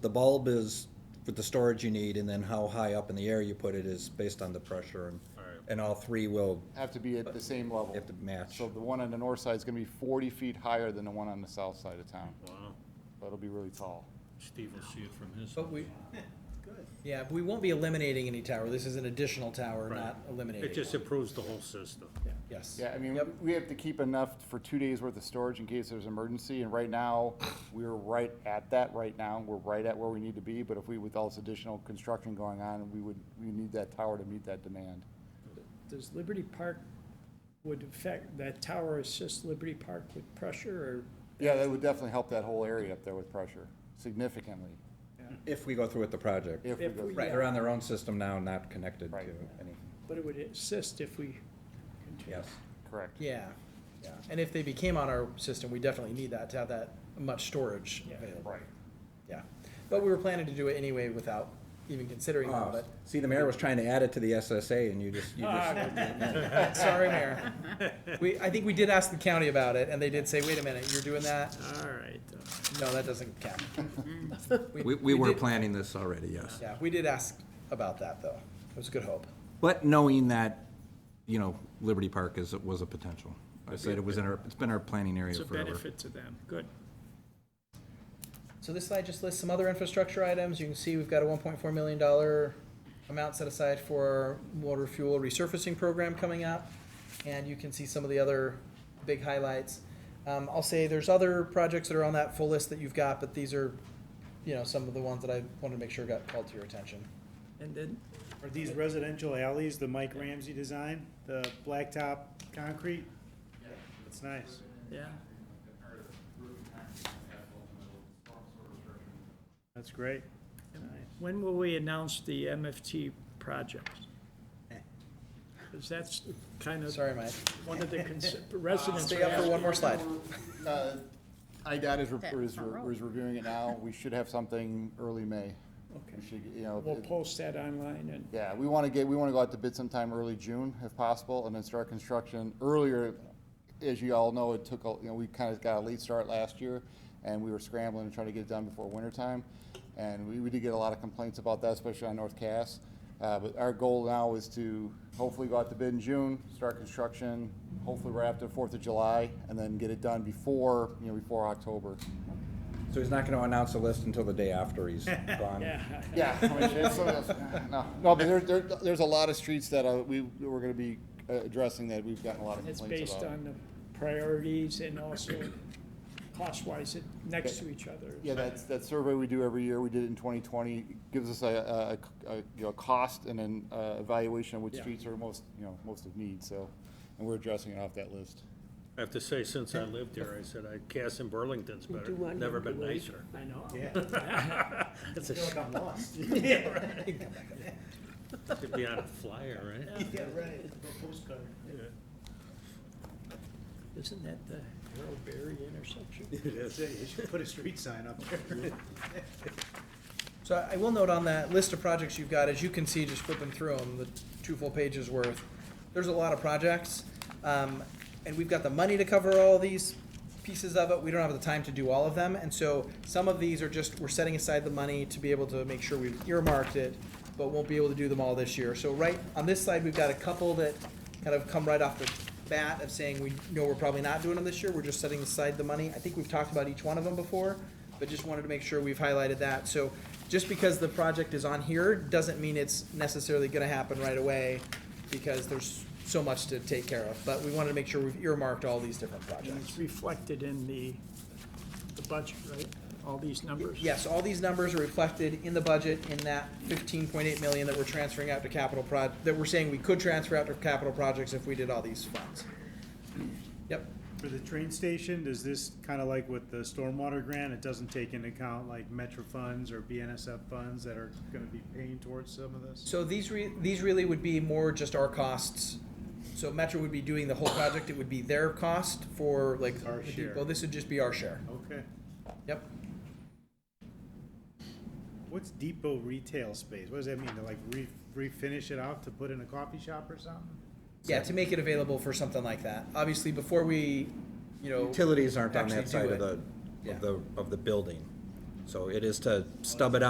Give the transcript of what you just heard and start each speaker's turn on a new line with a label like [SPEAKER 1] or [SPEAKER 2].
[SPEAKER 1] The bulb is with the storage you need, and then how high up in the air you put it is based on the pressure, and,
[SPEAKER 2] All right.
[SPEAKER 1] and all three will,
[SPEAKER 3] Have to be at the same level.
[SPEAKER 1] have to match.
[SPEAKER 3] So the one on the north side is gonna be forty feet higher than the one on the south side of town.
[SPEAKER 2] Wow.
[SPEAKER 3] So it'll be really tall.
[SPEAKER 2] Steve will see it from his.
[SPEAKER 1] Oh.
[SPEAKER 4] But we, yeah, we won't be eliminating any tower. This is an additional tower,
[SPEAKER 2] Right.
[SPEAKER 4] not eliminating.
[SPEAKER 2] It just
[SPEAKER 4] one.
[SPEAKER 2] improves the whole system.
[SPEAKER 4] Yes.
[SPEAKER 3] Yeah, I mean,
[SPEAKER 4] Yep.
[SPEAKER 3] we have to keep enough for two days worth of storage in case there's an emergency, and right now, we're right at that right now. We're right at where we need to be, but if we, with all this additional construction going on, we would, we need that tower to meet that demand.
[SPEAKER 5] Does Liberty Park, would affect, that tower assist Liberty Park with pressure
[SPEAKER 3] Yeah, that would definitely help that whole area up there with pressure significantly.
[SPEAKER 1] if we go through with the project.
[SPEAKER 3] If we
[SPEAKER 5] If
[SPEAKER 3] go,
[SPEAKER 5] we-
[SPEAKER 1] Right, they're on their own system now, not connected to
[SPEAKER 3] Right.
[SPEAKER 1] anything,
[SPEAKER 5] or, but it would assist if we. continue.
[SPEAKER 1] yes.
[SPEAKER 3] correct.
[SPEAKER 4] Yeah. Yeah. And if they became on our system, we definitely need that to have that much storage
[SPEAKER 5] Yeah.
[SPEAKER 4] available.
[SPEAKER 3] Right.
[SPEAKER 4] Yeah. But we were planning to do it anyway without even considering that,
[SPEAKER 1] Oh, See, the mayor was trying to add it to the SSA, and you just, you
[SPEAKER 4] Ah,
[SPEAKER 1] just,
[SPEAKER 4] but sorry, Mayor. We, I think we did ask the county about it and they did say, wait a minute, you're doing that?
[SPEAKER 5] All right.
[SPEAKER 4] No, that doesn't count.
[SPEAKER 1] we, we were
[SPEAKER 4] did-
[SPEAKER 1] planning this already, yes.
[SPEAKER 4] Yeah, we did ask about that though. It was a good hope.
[SPEAKER 1] But knowing that, you know, Liberty Park is, was a potential. I said it was in our, it's been our planning area
[SPEAKER 5] It's a
[SPEAKER 1] forever.
[SPEAKER 5] benefit to them, good.
[SPEAKER 4] So this slide just lists some other infrastructure items. You can see we've got a one point four million dollar amount set aside for water fuel resurfacing program coming up. And you can see some of the other big highlights. Um, I'll say there's other projects that are on that full list that you've got, but these are, you know, some of the ones that I wanted to make sure got called to your attention.
[SPEAKER 6] And then,
[SPEAKER 7] Are these residential alleys, the Mike Ramsey design, the blacktop concrete? That's nice.
[SPEAKER 6] yeah,
[SPEAKER 7] That's great.
[SPEAKER 6] when will we announce the MFT project? Because that's kind of
[SPEAKER 4] Sorry, Mike.
[SPEAKER 6] one of the cons- residents
[SPEAKER 4] Stay
[SPEAKER 6] are
[SPEAKER 4] up for one more slide.
[SPEAKER 3] Uh, IDOT is, re-
[SPEAKER 8] That
[SPEAKER 3] is,
[SPEAKER 8] front
[SPEAKER 3] re-
[SPEAKER 8] row.
[SPEAKER 3] is reviewing it now. We should have something early May. We
[SPEAKER 6] Okay.
[SPEAKER 3] should, you know.
[SPEAKER 6] We'll
[SPEAKER 3] it-
[SPEAKER 6] post that online and
[SPEAKER 3] Yeah, we want to get, we want to go out to bid sometime early June if possible and then start construction earlier. As you all know, it took, a- you know, we kind of got a late start last year and we were scrambling and trying to get it done before winter time. And we, we did get a lot of complaints about that, especially on North Cass. Uh, but our goal now is to hopefully go out to bid in June, start construction, hopefully right after Fourth of July and then get it done before, you know, before October.
[SPEAKER 1] So he's not gonna announce a list until the day after he's gone.
[SPEAKER 3] Yeah, I mean, it's sort of- no, no, but there, there, there's a lot of streets that uh, we, we're gonna be uh, addressing that we've gotten a lot of
[SPEAKER 6] it's
[SPEAKER 3] complaints
[SPEAKER 6] based
[SPEAKER 3] about.
[SPEAKER 6] on the priorities and also cost-wise, it- next to each other.
[SPEAKER 3] Yeah, that's, that survey we do every year, we did it in twenty twenty, gives us a, a, a, you know, cost and then, uh, evaluation of which
[SPEAKER 6] Yeah.
[SPEAKER 3] streets are most, you know, most of need, so, and we're addressing it off that list.
[SPEAKER 2] I have to say, since I lived here, I said, I, Cass and Burlington's better, never been nicer.
[SPEAKER 6] I know.
[SPEAKER 2] That's a sh-
[SPEAKER 7] I'm lost.
[SPEAKER 2] Should be on a flyer, right?
[SPEAKER 7] Yeah, right. Postcard.
[SPEAKER 6] Isn't that the Harold Berry intersection?
[SPEAKER 7] It is. You should put a street sign up there.
[SPEAKER 4] So I will note on that list of projects you've got, as you can see, just flipping through them, the two full pages worth, there's a lot of projects. Um, and we've got the money to cover all these pieces of it. We don't have the time to do all of them. And so some of these are just, we're setting aside the money to be able to make sure we've earmarked it, but won't be able to do them all this year. So right, on this slide, we've got a couple that kind of come right off the bat of saying, we know we're probably not doing them this year. We're just setting aside the money. I think we've talked about each one of them before but just wanted to make sure we've highlighted that. So just because the project is on here doesn't mean it's necessarily gonna happen right away because there's so much to take care of. But we wanted to make sure we've earmarked all these different
[SPEAKER 6] And
[SPEAKER 4] projects.
[SPEAKER 6] it's reflected in the, the budget, right? All these numbers?
[SPEAKER 4] Yes, all these numbers are reflected in the budget in that fifteen point eight million that we're transferring out to capital proj, that we're saying we could transfer out to capital projects if we did all these funds. Yep,
[SPEAKER 7] For the train station, does this, kind of like with the stormwater grant, it doesn't take into account like Metro funds or BNSF funds that are gonna be paying towards some of this?
[SPEAKER 4] so these re, these really would be more just our costs. So Metro would be doing the whole project, it would be their cost for like
[SPEAKER 7] Our
[SPEAKER 4] the
[SPEAKER 7] share.
[SPEAKER 4] depot, this would just be our share.
[SPEAKER 7] Okay.
[SPEAKER 4] Yep.
[SPEAKER 7] What's depot retail space? What does that mean? To like re- refinish it out to put in a coffee shop or something?
[SPEAKER 4] Yeah, to make it available for something like that. Obviously, before we, you know.
[SPEAKER 1] Utilities aren't on
[SPEAKER 4] actually
[SPEAKER 1] that
[SPEAKER 4] do
[SPEAKER 1] side of
[SPEAKER 4] it.
[SPEAKER 1] the,
[SPEAKER 4] Yeah.
[SPEAKER 1] of the, of the building. So it is to stub it out.